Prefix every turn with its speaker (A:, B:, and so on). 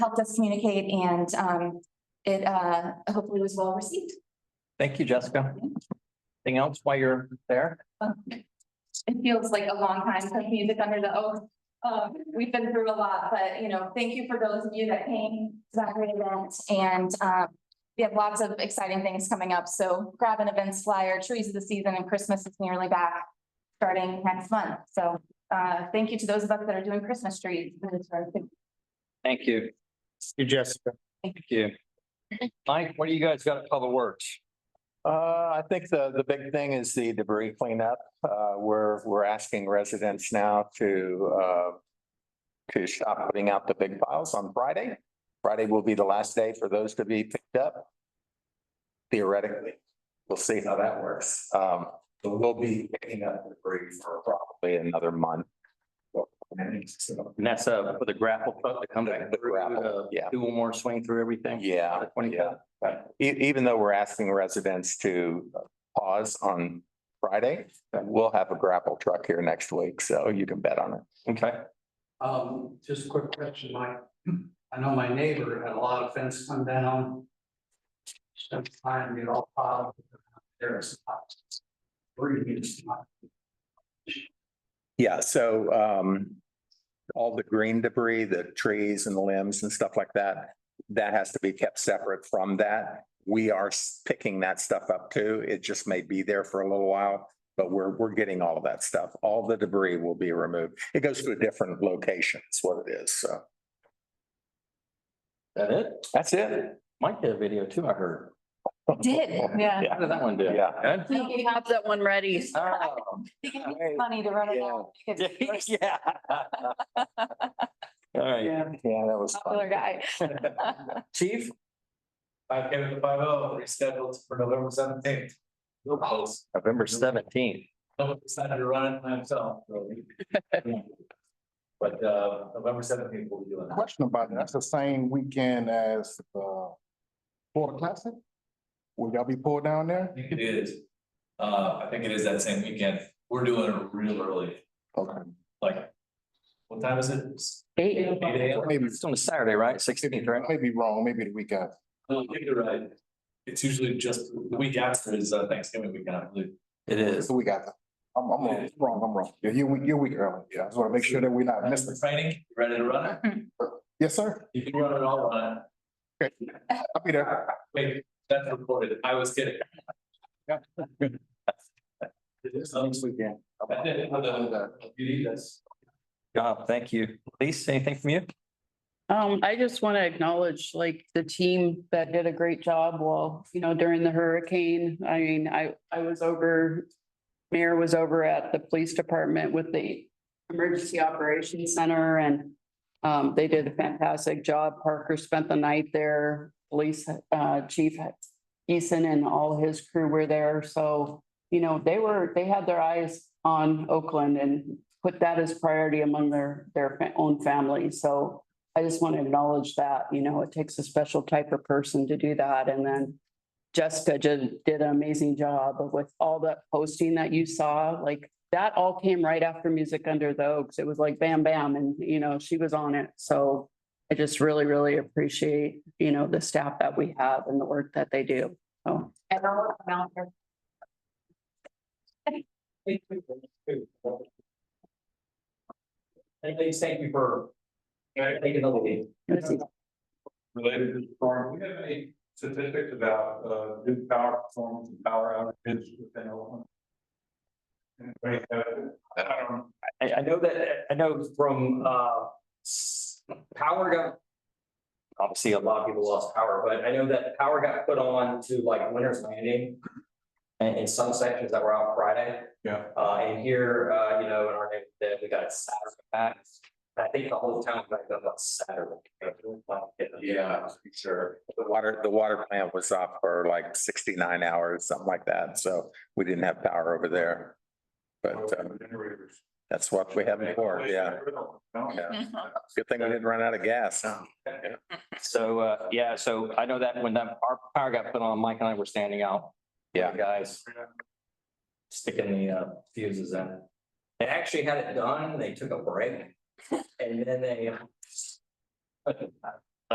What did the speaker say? A: helped us communicate and um it uh hopefully was well received.
B: Thank you, Jessica. Anything else while you're there?
A: Um, It feels like a long time since music under the oak. Um, we've been through a lot, but you know, thank you for those of you that came to that great event and um we have lots of exciting things coming up, so grab an events flyer, trees of the season and Christmas is nearly back starting next month. So uh thank you to those of us that are doing Christmas trees.
B: Thank you.
C: You, Jessica.
B: Thank you. Mike, what do you guys got at Public Works?
C: Uh, I think the, the big thing is the debris cleanup. Uh, we're, we're asking residents now to, uh, to stop putting out the big piles on Friday. Friday will be the last day for those to be picked up. Theoretically, we'll see how that works. Um, but we'll be picking up debris for probably another month.
B: And that's uh for the grapple truck that comes
C: The gravel, uh, yeah.
B: Do one more swing through everything?
C: Yeah,
B: Twenty
C: yeah.
B: five.
C: E- even though we're asking residents to pause on Friday, we'll have a grapple truck here next week, so you can bet on it.
B: Okay.
D: Um, just a quick question, Mike. I know my neighbor had a lot of fence come down. Spent time, you know, piled. There's. Where you need to.
C: Yeah, so um, all the green debris, the trees and the limbs and stuff like that, that has to be kept separate from that. We are s- picking that stuff up too. It just may be there for a little while, but we're, we're getting all of that stuff. All the debris will be removed. It goes to a different location, is what it is, so.
B: That it?
C: That's it.
B: Mike did a video too, I heard.
A: Did, yeah.
B: How did that one do?
C: Yeah.
A: Thank you.
E: have that one ready.
B: Oh,
A: It can be funny to run it out. because you're a
B: Yeah. All right,
D: Yeah.
C: Yeah, that was.
A: Popular guy.
B: chief?
F: Five K to five oh, rescheduled for November seventeenth. No post.
B: November seventeenth.
F: No, decided to run it myself, really. But uh, November seventeenth will be doing that.
G: question about that. That's the same weekend as uh Florida Classic? Will y'all be pulled down
F: I
G: there?
F: think it is. Uh, I think it is that same weekend. We're doing it real early,
G: Okay.
F: like. What time is it?
E: Eight.
F: Eight AM?
G: Maybe,
B: It's on a Saturday, right? Sixteenth, right?
G: maybe wrong, maybe the weekend.
F: No, Oh, I think you're right. It's usually just the week after is uh, Thanksgiving weekend, I believe.
B: It
G: It's
B: is.
G: the week after. I'm, I'm wrong, wrong, I'm wrong. Yeah, You're, week- you're week early. Yeah, I just want to make sure that we're not missing.
F: Mr. Training, you ready to run it?
G: Yes, sir.
F: You can run it all on it.
G: I'll be there.
F: Wait, that's recorded. I was kidding. It is next weekend. I did, it with the- you need this.
B: Job, thank you. Lisa, anything from you?
E: Um, I just want to acknowledge like the team that did a great job while, you know, during the hurricane. I mean, I, I was over. Mayor was over at the police department with the Emergency Operations Center and. Um, they did a fantastic job. Parker spent the night there. Police, uh, Chief Eason and all his crew were there. So, you know, they were, they had their eyes on Oakland and put that as priority among their, their fa- own family. So I just want to acknowledge that, you know, it takes a special type of person to do that. And then Jessica did, did an amazing job of with all that posting that you saw, like that all came right after Music Under the Oaks. It was like bam, bam, and you know, she was on it. So I just really, really appreciate, you know, the staff that we have and the work that they do. So
A: And I'll come out there.
F: And please thank you for. Taking the lead.
H: related to the storm, we have any statistics about uh good power performance and power outages within Oakland? Anybody have it? I don't know.
F: I, I know that, I know from, uh, s- power got. Obviously, a lot of people lost power, but I know that power got put on to like Winter's Landing. And in some sections that were out Friday.
H: Yeah.
F: Uh, and here, uh, you know, in our neighborhood, we got Saturday back. I think the whole town got up on Saturday.
H: Yeah, sure.
C: The water, the water plant was off for like sixty-nine hours, something like that, so we didn't have power over there. But um,
H: Generators.
C: that's what we have before, yeah.
H: No.
C: yeah. Good thing we didn't run out of gas, huh?
B: So, uh, yeah, so I know that when that, our power got put on, Mike and I were standing out.
C: Yeah.
B: Guys.
F: Sticking the uh, fuses in. They actually had it done, they took a break, and then they.